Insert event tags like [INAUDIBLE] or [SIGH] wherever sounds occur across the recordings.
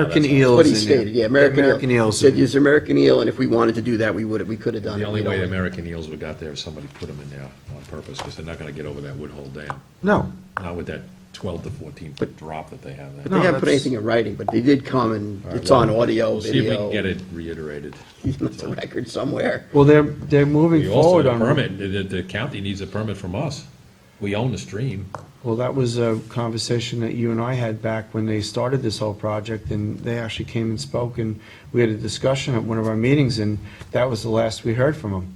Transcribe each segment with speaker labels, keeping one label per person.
Speaker 1: American
Speaker 2: That's
Speaker 1: eels.
Speaker 2: What he
Speaker 1: in there.
Speaker 2: stated, yeah, American
Speaker 1: American
Speaker 2: eel.
Speaker 1: eels.
Speaker 2: Said use American eel, and if we wanted to do that, we would, we could have done
Speaker 3: The
Speaker 2: it.
Speaker 3: only
Speaker 2: We don't-
Speaker 3: way American eels would got there if somebody put them in there on purpose, because they're not gonna get over that Woodhull Dam,
Speaker 1: No,
Speaker 3: not with that twelve to fourteen foot drop that they have
Speaker 2: They
Speaker 3: there.
Speaker 1: No,
Speaker 2: haven't put
Speaker 1: that's-
Speaker 2: anything in writing, but they did come, and
Speaker 3: All right,
Speaker 2: it's on
Speaker 3: well,
Speaker 2: audio,
Speaker 3: We'll see if we
Speaker 2: video.
Speaker 3: can get it reiterated.
Speaker 2: [LAUGHS] It's a record somewhere.
Speaker 1: well, they're, they're moving
Speaker 3: We also
Speaker 1: forward
Speaker 3: have a
Speaker 1: on.
Speaker 3: permit, the, the- the county needs a permit from us. We own the stream.
Speaker 1: Well, that was a conversation that you and I had back when they started this whole project, and they actually came and spoke, and we had a discussion at one of our meetings, and that was the last we heard from them.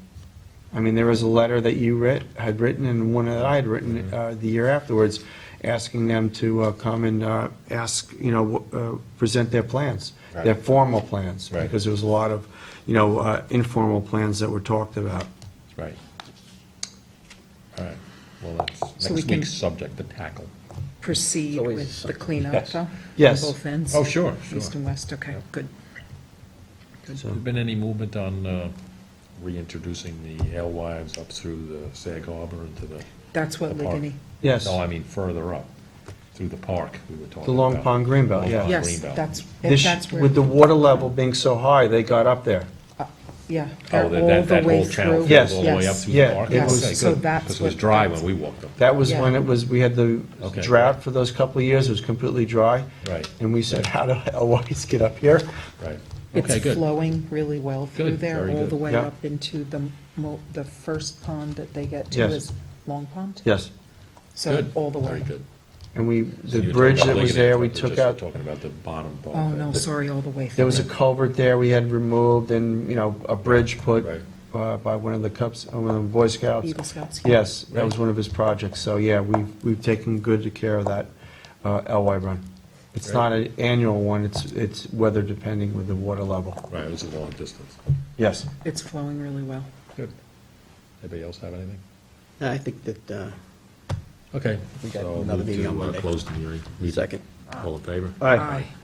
Speaker 1: I mean, there was a letter that you writ, had written, and one that I had written
Speaker 3: Mm-hmm.
Speaker 1: uh, the year afterwards, asking them to uh, come and uh, ask, you know, w- uh, present their plans, their
Speaker 3: Right.
Speaker 1: formal plans.
Speaker 3: Right.
Speaker 1: Because there was a lot of, you know, uh, informal plans that were talked about.
Speaker 3: Right. All right, well, that's
Speaker 4: So we
Speaker 3: next
Speaker 4: can-
Speaker 3: week's subject to tackle.
Speaker 4: proceed
Speaker 2: Always
Speaker 4: with the
Speaker 2: something.
Speaker 4: cleanup,
Speaker 3: Yes.
Speaker 4: though?
Speaker 1: Yes.
Speaker 4: On both ends?
Speaker 3: Oh, sure,
Speaker 4: East
Speaker 3: sure.
Speaker 4: and west, okay, good.
Speaker 1: So-
Speaker 3: Has been any movement on uh, reintroducing the alewives up through the Sag Harbor into the?
Speaker 4: That's what
Speaker 3: the park?
Speaker 4: Ligonie,
Speaker 1: Yes.
Speaker 3: No, I mean further up, through the park we were talking about.
Speaker 1: The Long Pond Greenbelt,
Speaker 3: Long
Speaker 1: yeah.
Speaker 3: Pond
Speaker 4: yes,
Speaker 3: Greenbelt.
Speaker 4: that's,
Speaker 1: This-
Speaker 4: that's where,
Speaker 1: With the water level being so high, they got up there.
Speaker 4: yeah. they're
Speaker 3: Oh, that,
Speaker 4: all
Speaker 3: that,
Speaker 4: the
Speaker 3: that
Speaker 4: way
Speaker 3: whole channel
Speaker 4: through.
Speaker 3: goes
Speaker 1: Yes.
Speaker 3: all the way up through the
Speaker 1: Yeah,
Speaker 3: park?
Speaker 1: it
Speaker 3: Okay,
Speaker 1: was-
Speaker 3: good,
Speaker 4: so that's
Speaker 3: Because it was
Speaker 4: what-
Speaker 3: dry
Speaker 4: that's-
Speaker 3: when we walked up. there.
Speaker 1: That was when
Speaker 4: Yeah.
Speaker 1: it was, we had the
Speaker 3: Okay.
Speaker 1: drought for those couple of years, it was completely dry.
Speaker 3: Right.
Speaker 1: And we said, how do Eloise [LAUGHS] get up here?
Speaker 3: Right. Okay,
Speaker 4: It's
Speaker 3: good.
Speaker 4: flowing really well through
Speaker 3: Good,
Speaker 4: there,
Speaker 3: very
Speaker 4: all
Speaker 3: good.
Speaker 4: the way
Speaker 1: Yeah.
Speaker 4: up into the, mo- the first pond that they get to
Speaker 1: Yes.
Speaker 4: is Long Pond?
Speaker 1: Yes.
Speaker 4: So
Speaker 3: Good.
Speaker 4: all the
Speaker 3: Very
Speaker 4: way.
Speaker 3: good.
Speaker 1: And we,
Speaker 3: So
Speaker 1: the
Speaker 3: you were
Speaker 1: bridge
Speaker 3: talking
Speaker 1: that
Speaker 3: about
Speaker 1: was
Speaker 3: Ligonie,
Speaker 1: there, we
Speaker 3: but
Speaker 1: took
Speaker 3: just
Speaker 1: out,
Speaker 3: Talking about the bottom part.
Speaker 4: Oh,
Speaker 3: of
Speaker 4: no,
Speaker 3: it.
Speaker 4: sorry, all the way through.
Speaker 1: there was a culvert there we had removed and, you know, a bridge put
Speaker 3: Right.
Speaker 1: uh, by one of the Cubs, uh, one of the Boy Scouts.
Speaker 4: Eagle Scouts.
Speaker 1: Yes, that was
Speaker 3: Right.
Speaker 1: one of his projects. So, yeah, we've, we've taken good care of that uh, LY run. It's
Speaker 3: Right.
Speaker 1: not an annual one, it's, it's weather depending with the water level.
Speaker 3: Right, it was a long distance.
Speaker 1: Yes.
Speaker 4: It's flowing really well.
Speaker 3: Good. Anybody else have anything?
Speaker 2: I think that, uh,
Speaker 3: Okay.
Speaker 2: We got
Speaker 3: so
Speaker 2: another
Speaker 3: move
Speaker 2: meeting
Speaker 3: to,
Speaker 2: on
Speaker 3: uh,
Speaker 2: Monday.
Speaker 3: Close the hearing.
Speaker 2: second.
Speaker 3: All in favor?
Speaker 1: All right.
Speaker 4: Aye.